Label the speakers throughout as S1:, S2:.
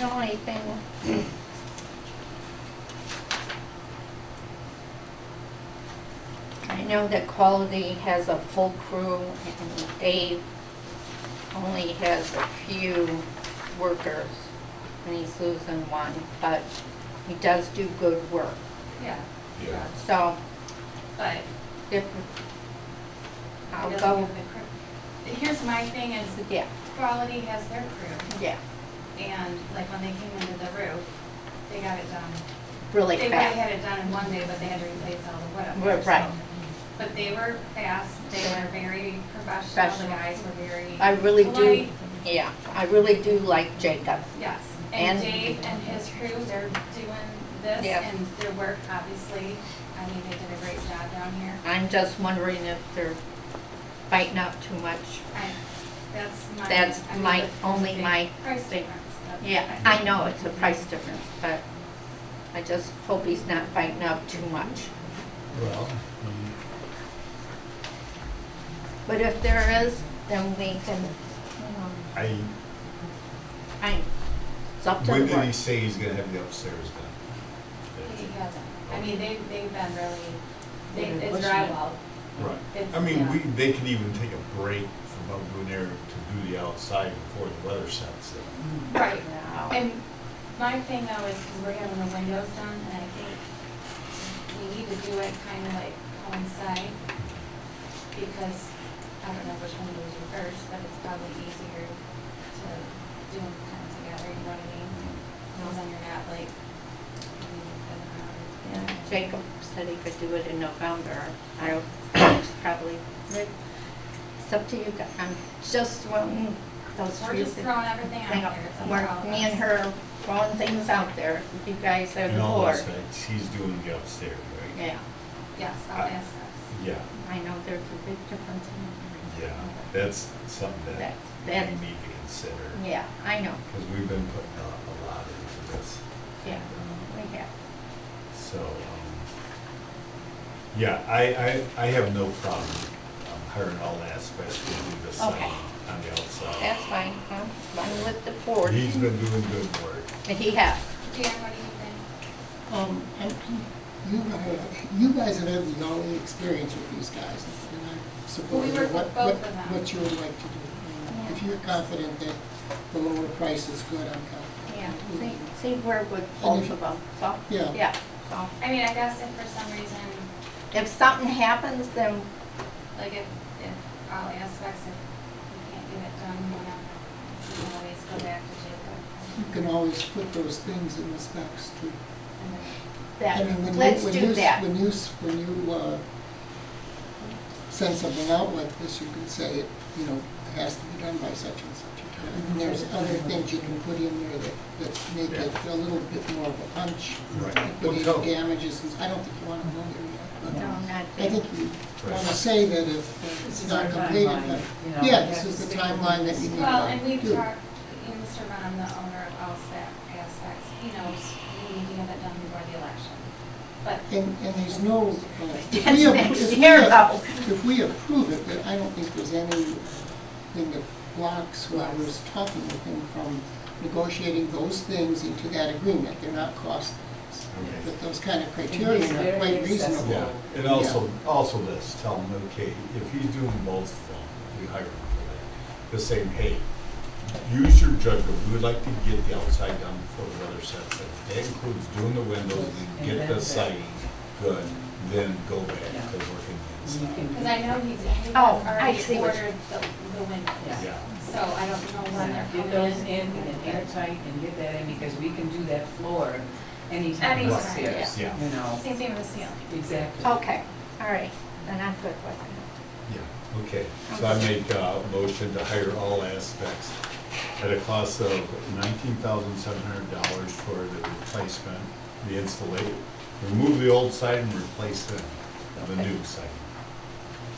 S1: don't want anything. I know that quality has a full crew and Dave only has a few workers and he's losing one, but he does do good work.
S2: Yeah.
S3: Yeah.
S1: So
S2: But
S1: if, I'll
S2: it doesn't
S1: go,
S2: give the crew. Here's my thing is
S1: yeah,
S2: quality has their crew
S1: yeah,
S2: and like when they came into the roof, they got it done.
S1: really
S2: They probably
S1: fast.
S2: had it done in one day, but they had to replace all the wood up
S1: We're
S2: there. so-
S1: right.
S2: But they were fast, they were very professional, the
S1: Professional.
S2: guys were very.
S1: I really do,
S2: polite.
S1: yeah, I really do like Jacob.
S2: Yes, and
S1: And-
S2: Dave and his crew, they're doing this
S1: Yeah.
S2: and their work, obviously, I mean, they did a great job down here.
S1: I'm just wondering if they're biting up too much.
S2: I, that's my.
S1: That's
S2: I mean,
S1: my-
S2: the- the
S1: only
S2: big
S1: my
S2: Price
S1: thing.
S2: difference. that's
S1: Yeah,
S2: my-
S1: I know it's a price difference, but I just hope he's not biting up too much.
S4: Well,
S1: But if there is, then we can, um,
S3: I,
S1: I, it's up to the
S3: when did he
S1: board.
S3: say he's gonna have the upstairs
S2: He
S3: done?
S2: hasn't, I mean, they, they've been really, they,
S1: They've been
S2: it's
S1: pushing it.
S2: drywall,
S1: Oh.
S3: Right.
S2: It's-
S3: I mean,
S2: yeah.
S3: we, they could even take a break from up doing there to do the outside before the weather sets in.
S2: right,
S1: Wow.
S2: and my thing though is, cause we're having the windows done, and I think we need to do it kinda like coincide, because I don't know which one to do first, but it's probably easier to do them kinda together, you know what I mean? Cause then you're not like, you know, kind of
S1: Yeah,
S2: around.
S1: Jacob said he could do it in November. I it's probably, it's up to you guys. I'm just wanting those
S2: We're
S1: few
S2: just
S1: things.
S2: throwing everything
S1: Hang
S2: out
S1: on,
S2: there. It's up to all
S1: we're,
S2: of
S1: me and
S2: us.
S1: her throwing things out there, if you guys are the
S3: And all
S1: board.
S3: those things, he's doing the upstairs, right?
S1: Yeah,
S2: Yes, I'll
S1: Uh,
S3: I-
S2: ask us.
S3: Yeah,
S1: I know there's a big difference in
S3: yeah, that's something that
S1: That-
S3: we
S1: that-
S3: need to consider,
S1: Yeah, I know,
S3: because we've been putting a, a lot into this,
S1: yeah, we have.
S3: so, um, yeah, I, I, I have no problem um, hiring all aspects to do this on,
S1: Okay.
S3: on the outside.
S1: That's fine, I'm, I'm with the board.
S3: He's been doing good work.
S1: And he has.
S2: Dan, what do you think?
S5: Um, and you guys, you guys have had the only experience with these guys, and I support
S2: We
S5: you,
S2: work with
S5: what,
S2: both
S5: what,
S2: of them.
S5: what you would like to do. And If you're confident that the lower price is good, I'm confident.
S1: Yeah, see, see, we're with both of them, so.
S5: Yeah.
S1: Yeah, so,
S2: I mean, I guess if for some reason,
S1: if something happens, then,
S2: like if, if all aspects, if we can't get it done, you know, we can always go back to
S5: You
S2: Jacob.
S5: can always put those things in the specs too.
S2: and then-
S5: I
S1: that,
S5: mean, when you-
S1: let's
S5: when
S1: do
S5: you-
S1: that.
S5: When you, s- when you, uh, send something out like this, you can say, it, you know, it has to be done by such and such a time. And there's other things you can put in there that, that make it a little bit more of a punch.
S3: Right.
S5: Liquidated damages, and I don't think you want to go there yet,
S1: No, not
S5: but I
S1: that.
S5: think you want to say that if
S6: This
S5: it's
S6: is
S5: not
S6: our
S5: completed,
S6: timeline, you know,
S5: but, yeah,
S6: we
S5: this
S6: have to
S5: is the
S6: stick with
S5: timeline that you
S6: this.
S5: need to do.
S2: Well, and we've talked, you know, Mr. Dunham, the owner of all spa- aspects, he knows we need to have it done before the election. But
S5: And, and there's no, uh, if
S1: That's
S5: we, appro-
S1: next
S5: if we,
S1: year,
S5: ap-
S1: though.
S5: if we approve it, then I don't think there's anything that blocks whoever's talking with him from negotiating those things into that agreement. They're not cost,
S3: Okay.
S5: but those kind of
S6: And
S5: criteria
S6: it's
S5: are
S6: very
S5: quite
S6: accessible.
S5: reasonable.
S3: Yeah, and also, also this, tell him, okay, if he's doing both of them, we hire him for that, to say, hey, use your judgment, we would like to get the outside done before the weather sets in. That includes doing the windows, and get the siding good, then go back to working the
S6: You
S3: inside.
S6: can-
S2: Because I know he's, he
S1: Oh, I
S2: already
S1: see what you-
S2: ordered the, the windows,
S3: Yeah,
S2: so I don't know when they're coming
S6: Get
S2: in.
S6: those in and airtight and get that in, because we can do that floor anytime
S2: Anytime,
S6: upstairs, you
S3: yeah.
S6: know,
S2: Same thing with the ceiling.
S6: exactly.
S1: Okay, all right, then I'm good with
S3: yeah, okay. So I make uh, a motion to hire all aspects at a cost of nineteen thousand seven hundred dollars for the replacement, the installation. Remove the old side and replace it with the new side.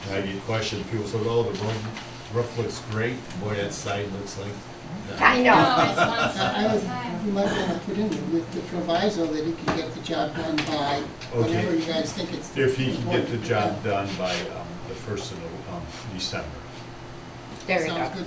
S3: And I get questioned, people say, oh, the roof, roof looks great, boy, that side looks like.
S1: it. I
S2: No,
S1: know,
S2: it's one step at
S5: I
S2: a
S5: would, you
S2: time.
S5: might want to put in with the proviso that he can get the job done by whatever
S3: Okay.
S5: you guys think it's.
S3: If he can get the
S5: important to
S3: job done by um, the first of um, December.
S1: there we go.
S5: Sounds good